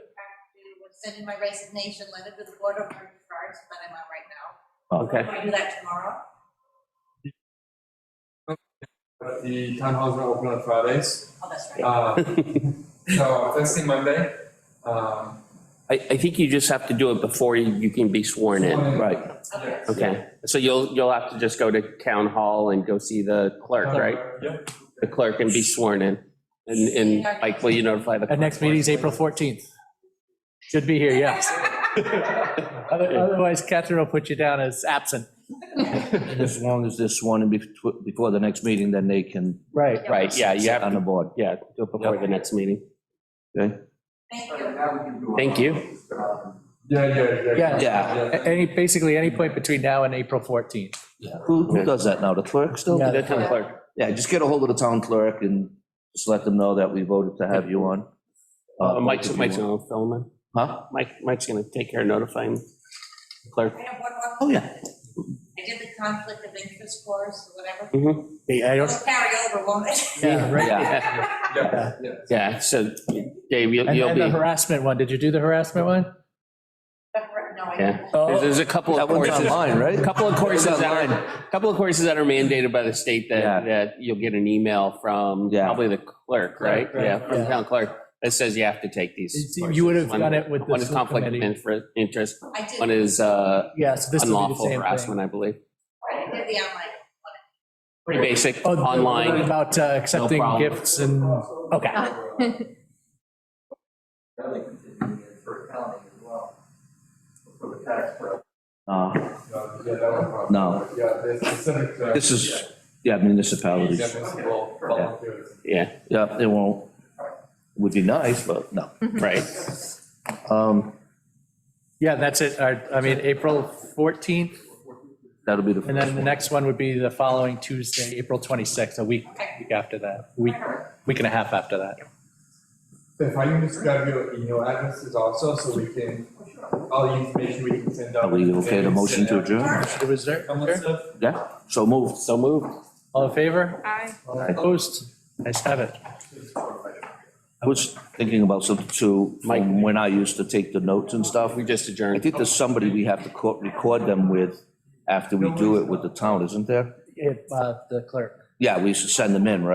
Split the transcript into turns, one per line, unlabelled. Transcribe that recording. send in my resignation letter to the board of registrars, but I'm on right now.
Okay.
Do I do that tomorrow?
But the town hall's not open on Fridays.
Oh, that's right.
Um, so first thing Monday, um,
I, I think you just have to do it before you you can be sworn in.
Sworn in.
Right.
Okay.
yes.
Okay. So you'll, you'll have to just go to town hall and go see the clerk, right?
Yep.
The clerk and be sworn in. And, and like, will you notify the?
Our next meeting's April 14th. Should be here, yes. Other- Otherwise, Catherine will put you down as absent.
And as long as this one and bef- before the next meeting, then they can
Right.
Right, yeah, you
sit
have
on the
to,
board.
yeah, do it before the next meeting.
Thank
But
you.
now we can do.
Thank you.
Yeah, yeah, yeah.
Yeah.
Yeah.
A- Any, basically any point between now and April 14th.
Who, who does that now? The clerk still?
Yeah.
The town clerk.
Yeah, just get a hold of the town clerk and just let them know that we voted to have you on.
Uh,
Uh,
Mike's,
if you
Mike's
want.
gonna film him.
Huh?
Mike, Mike's gonna take care of notifying the clerk.
I have one more.
Oh, yeah.
I did the conflict of interest course or whatever.
Yeah, I don't,
It'll carry over, won't it?
yeah, right.
Yeah.
Yeah,
Yeah, yeah.
yeah, so Dave, you'll,
And
you'll
then the
be,
harassment one, did you do the harassment one? Oh,
No, I
Yeah.
didn't.
there's, there's a couple of
That one's
courses.
online, right?
A couple of courses
It's
that
online.
are, couple of courses that are mandated by the state that, that you'll get an email from
Yeah.
probably the clerk, right?
Clerk, right,
Yeah, from
yeah.
town clerk, that says you have to take these.
You you would have
courses. One-
done it with the
One is
school
conflict of
committee.
infra- interest,
I did,
one is uh,
Yeah, so this would be
unlawful
the same thing.
harassment, I believe.
I did the online.
Pretty basic,
Oh, the one
online.
About uh, accepting
problem.
gifts and, okay.
That we can do it for accounting as well, for the tax prep.
Uh,
Yeah, yeah, that one probably.
No.
Yeah, the specific. uh,
This is, yeah, municipalities.
Municipal volunteers.
Yeah,
Yeah, they won't, would be nice, but no.
right.
Um,
Yeah, that's it. Our- I mean, April 14th,
That'll be the.
and then the next one would be the following Tuesday, April 26th, a week, week after that, week, week and a half after that.
If I can just grab your email addresses also, so we can, all the information we can send out.
Are we okay to motion
uh,
to adjourn?
It was there,
Some of the stuff.
Yeah, so moved.
So moved.
all in favor?
Aye.
Opposed? I have it.
I was thinking about some, too,
Mike.
from when I used to take the notes and stuff.
We just
I
adjourned.
think there's somebody we have to co- record them with after we do it with the town, isn't there?
If, uh, The clerk.
Yeah, we should send them in, right?